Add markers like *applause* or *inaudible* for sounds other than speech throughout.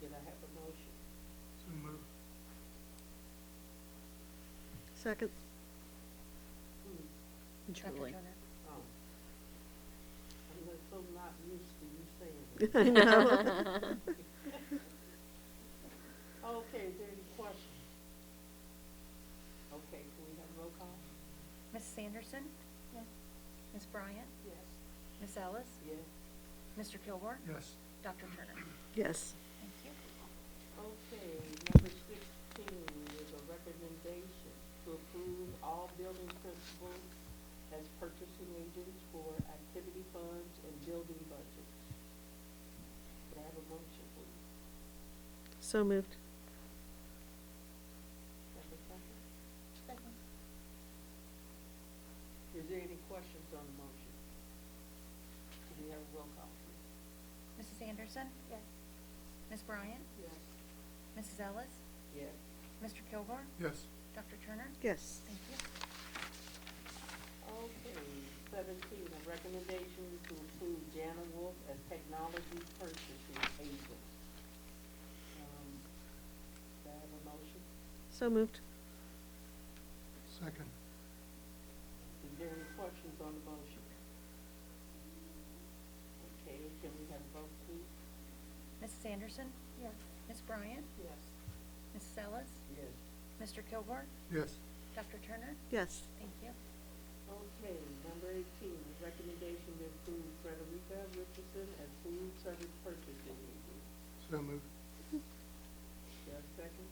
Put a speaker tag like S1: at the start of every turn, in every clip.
S1: Can I have a motion?
S2: So move.
S3: Second. *laughs*
S1: Hmm,
S3: Julie.
S1: um, I'm not so not used to you saying
S3: *laughs*
S1: that.
S3: I know.
S1: Okay, is there any questions? Okay, can we have roll call?
S4: Ms. Sanderson? Yes. Ms. Bryant?
S1: Yes.
S4: Ms. Ellis?
S1: Yes,
S4: Mr. Kilgore?
S2: Yes.
S4: Dr. Turner?
S3: Yes,
S4: Thank you.
S1: okay, number sixteen is a recommendation to approve all building principals as purchasing agents for activity funds and building budgets. Can I have a motion, please?
S3: so moved.
S1: Have a second? Is there any questions on the motion? Can we have a roll call, please?
S4: Mrs. Anderson? Yes. Ms. Bryant?
S1: Yes.
S4: Mrs. Ellis?
S1: Yes.
S4: Mr. Kilgore?
S2: Yes.
S4: Dr. Turner?
S3: Yes,
S4: Thank you.
S1: Okay, seventeen, a recommendation to approve Jana Wolf as technology purchasing agent. Um, do I have a motion?
S3: so moved.
S2: Second.
S1: Is there any questions on the motion? Okay, can we have a vote, please?
S4: Mrs. Anderson? Yes. Ms. Bryant?
S1: Yes.
S4: Mrs. Ellis?
S1: Yes.
S4: Mr. Kilgore?
S2: Yes.
S4: Dr. Turner?
S3: Yes,
S4: Thank you.
S1: Okay, number eighteen, is recommendation to approve Frederica Richardson as food service purchasing agent.
S2: So move.
S1: Do I have a second?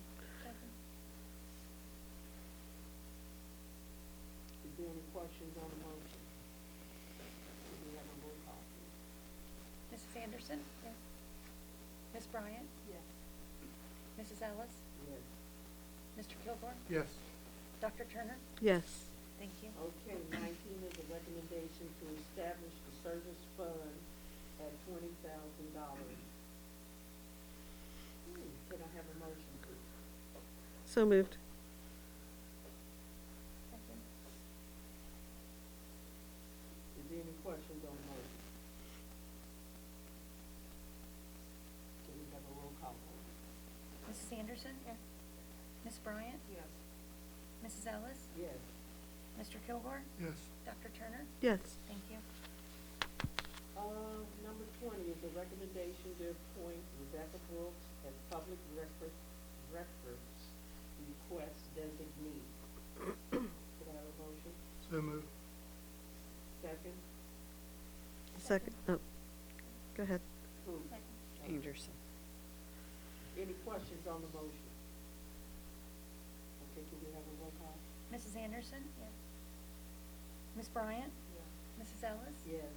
S1: Is there any questions on the motion? Do we have a roll call, please?
S4: Mrs. Anderson? Yes. Ms. Bryant?
S1: Yes.
S4: Mrs. Ellis?
S1: Yes.
S4: Mr. Kilgore?
S2: Yes.
S4: Dr. Turner?
S3: yes,
S4: Thank you.
S1: Okay, nineteen is a recommendation to establish the service fund at twenty thousand dollars. Hmm, Can I have a motion, please?
S3: so moved.
S1: Is there any questions on the motion? Can we have a roll call, please?
S4: Mrs. Anderson? Yes. Ms. Bryant?
S1: Yes.
S4: Mrs. Ellis?
S1: Yes.
S4: Mr. Kilgore?
S2: Yes.
S4: Dr. Turner?
S3: Yes,
S4: Thank you.
S1: Uh, number twenty is a recommendation to appoint Rebecca Brooks as public record, records request designee. Could I have a motion?
S2: So move.
S1: Second?
S3: second, oh, go ahead.
S1: Who?
S5: Anderson.
S1: Any questions on the motion? Okay, can we have a roll call?
S4: Mrs. Anderson? Yes. Ms. Bryant? Mrs. Ellis?
S1: Yes.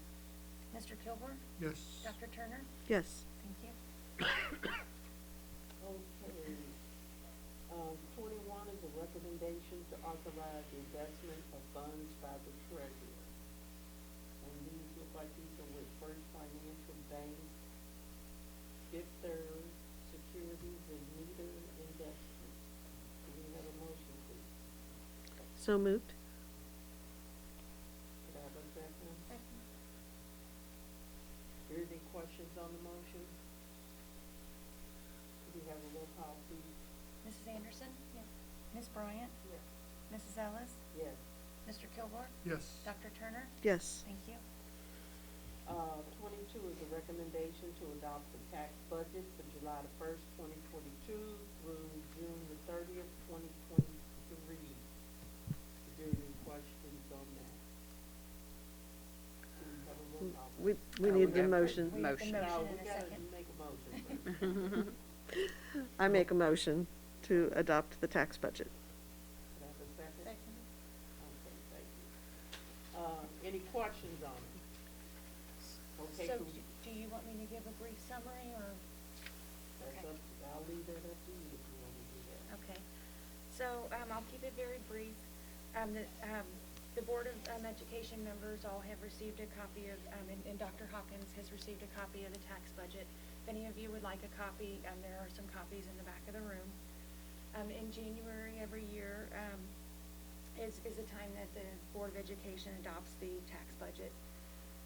S4: Mr. Kilgore?
S2: Yes.
S4: Dr. Turner?
S3: Yes,
S4: Thank you.
S1: Okay. Um, twenty-one is a recommendation to authorize the investment of funds by the treasurer. And these look like these are with First Financial Bank, Fifth Third Securities, and Neither Investments. Do we have a motion, please?
S3: so moved.
S1: Could I have a second? Are there any questions on the motion? Could we have a roll call, please?
S4: Mrs. Anderson? Yes. Ms. Bryant?
S1: Yes.
S4: Mrs. Ellis?
S1: Yes.
S4: Mr. Kilgore?
S2: Yes.
S4: Dr. Turner?
S3: Yes,
S4: Thank you.
S1: Uh, twenty-two is a recommendation to adopt the tax budget for July the first, twenty twenty-two through June the thirtieth, twenty twenty-three. Is there any questions on that? Do we have a roll call?
S3: we, we
S5: Oh, we
S3: need the
S5: got-
S3: motion.
S4: We have the
S5: Motion.
S1: No,
S4: motion
S1: we
S4: in a
S1: gotta make
S4: second.
S1: a
S4: *laughs*
S1: motion.
S3: I make a motion to adopt the tax budget.
S1: Could I have a second? Okay, thank you. Uh, any questions on it? Okay,
S4: So
S1: cool.
S4: d- do you want me to give a brief summary or?
S1: that's
S4: okay.
S1: up, to- I'll leave that up to you if you wanna do that.
S4: Okay. So, um, I'll keep it very brief. Um, the, um, the Board of, um, Education members all have received a copy of, um, and, and Dr. Hawkins has received a copy of the tax budget. If any of you would like a copy, um, there are some copies in the back of the room. Um, in January every year, um, is, is the time that the Board of Education adopts the tax budget.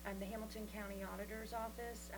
S4: Um, the Hamilton County Auditor's Office,